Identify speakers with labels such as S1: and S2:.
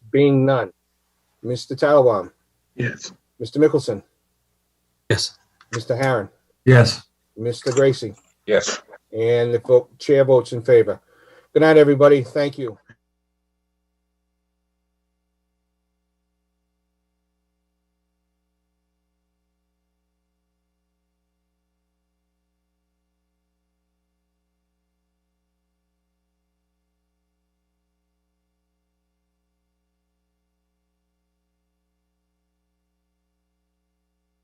S1: Being none. Mr. Tattelbaum,
S2: Yes.
S1: Mr. Mickelson,
S3: Yes.
S1: Mr. Harron,
S3: Yes.
S1: Mr. Gracie,
S2: Yes.
S1: and the vote- chair votes in favor. Good night, everybody. Thank you.